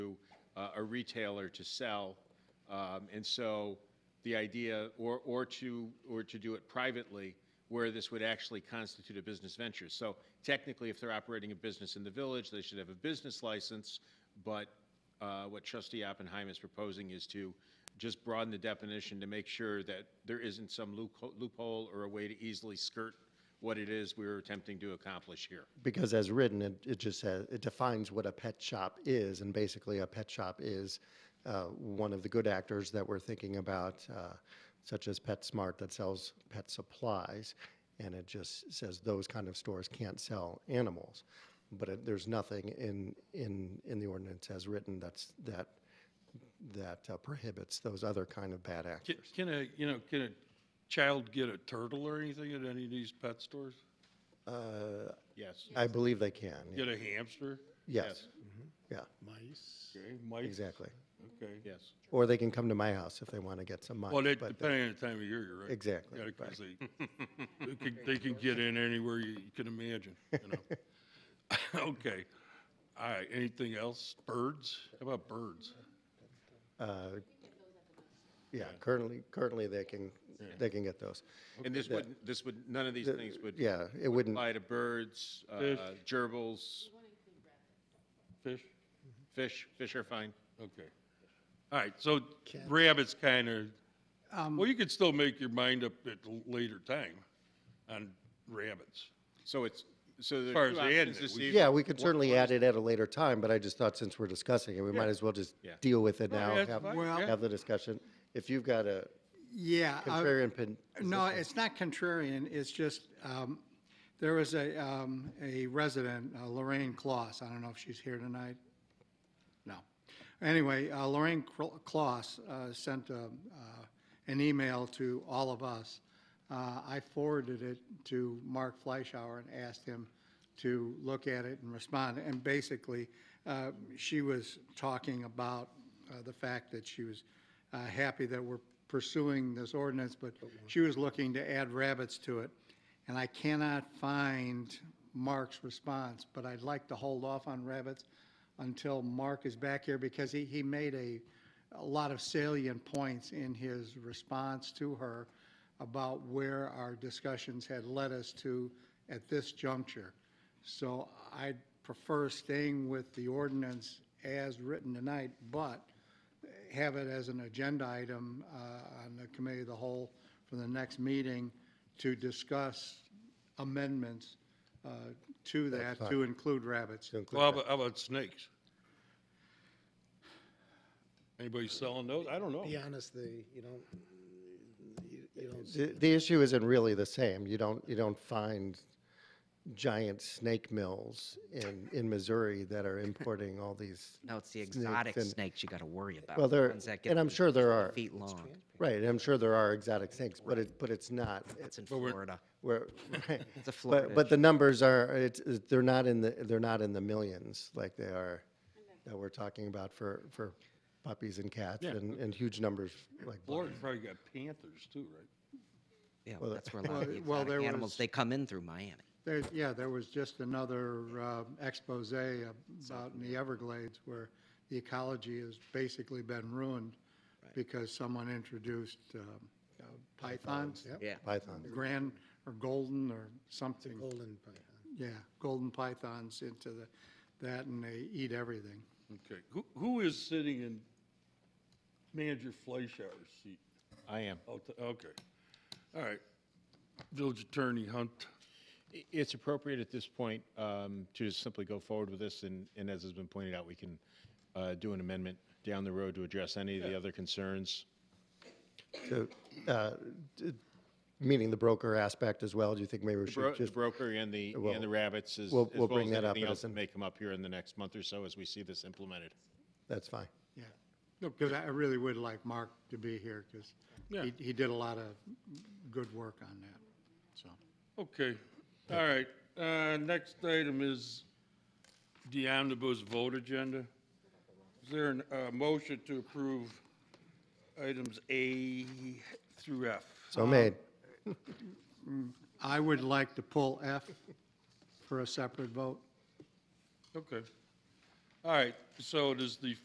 uh, a retailer to sell. Um, And so the idea, or, or to, or to do it privately, where this would actually constitute a business venture. So technically, if they're operating a business in the village, they should have a business license, but uh, what trustee Oppenheim is proposing is to just broaden the definition to make sure that there isn't some loopho- loophole or a way to easily skirt what it is we're attempting to accomplish here. Because as written, it, it just says, it defines what a pet shop is, and basically a pet shop is uh, one of the good actors that we're thinking about, uh, such as PetSmart that sells pet supplies, and it just says those kind of stores can't sell animals. But it, there's nothing in, in, in the ordinance as written that's, that, that uh, prohibits those other kind of bad Can- actors. Can a, you know, can a child get a turtle or anything at any of these pet stores? Uh, Yes. I believe they can, Get a hamster? yes, yeah, mice. Okay, mice? exactly. Okay. Yes. Or they can come to my house if they want to get some mice. Well, that, but the- depending on the time of year, you're right. Exactly, Yeah, 'cause they, they could, they could get in anywhere you you can imagine, you know? Okay. All right, anything else? Birds? How about birds? uh, Yeah, currently, currently they can, they can get those. And this would, this would, none of these things would Yeah, it wouldn't, apply to birds, uh, Fish. gerbils, Fish? fish, fish are fine. Okay. All right, so rabbits kind of, well, you could still make your mind up at a later time on rabbits. So it's, so there far are as two the options admin, this we- evening. yeah, we could certainly add it at a later time, but I just thought since we're discussing it, we might Yeah. as well just Yeah. deal with it No, now, that's have, fine, Well- yeah. have the discussion. If you've got a Yeah. I- contrarian pin, Uh, No, it's not contrarian, it's just, um, there was a, um, a resident, uh, Lorraine Claus, I don't know if she's here tonight. No. Anyway, uh, Lorraine Cl- Claus uh, sent a, uh, an email to all of us. Uh, I forwarded it to Mark Fleischauer and asked him to look at it and respond. And basically, uh, she was talking about uh, the fact that she was uh, happy that we're pursuing this ordinance, but she was looking to add rabbits to it. And I cannot find Mark's response, but I'd like to hold off on rabbits until Mark is back here because he, he made a, a lot of salient points in his response to her about where our discussions had led us to at this juncture. So I'd prefer staying with the ordinance as written tonight, but have it as an agenda item uh, on the committee of the whole for the next meeting to discuss amendments uh, to that, to include rabbits. to Well, how include, about, how about snakes? Anybody selling those? I don't know. Be honest, the, you don't, you you don't that. the, the issue isn't really the same. You don't, you don't find giant snake mills in, in Missouri that are importing all these No, it's the snakes exotic and- snakes you got to worry about. Well, the there- ones that get and I'm to be sure there 20 are. Feet long. Right, and I'm sure there are exotic snakes, but it, but it's not, That's in we're- Florida. where, right. It's a Florida. But, but the numbers are, it's, it's- they're not in the, they're not in the millions like they are that we're talking about for, for puppies and cats and, and huge numbers like. Florida probably got panthers too, right? yeah, well, that's where a lot of the well, exotic there animals was- they come in through Miami. There, yeah, there was just another uh, expose about in the Everglades where the ecology has basically been ruined because someone introduced um, uh, pythons, Yeah. Python. grand or golden or something, golden python. yeah, golden pythons into the, that, and they eat everything. Okay, who, who is sitting in manager Fleischauer's seat? I am. Oh, t- Okay, all right. Village Attorney Hunt. I- It's appropriate at this point um, to just simply go forward with this, and, and as has been pointed out, we can uh, do an amendment down the road to address any of the other concerns. So, uh, d- Meaning the broker aspect as well, do you think maybe we Bro- should The just, broker and the, Well, and the rabbits, as as we'll- well we'll bring as that up anything at else a- that may come up here in the next month or so as we see this implemented. that's fine. Yeah, because I I really would like Mark to be here, because Yeah. he, he did a lot of good work on that, so. Okay, all right. Uh, Next item is the omnibus vote agenda. Is there a motion to approve items A through F? So made. I would like to pull F for a separate vote. Okay. All right, so does the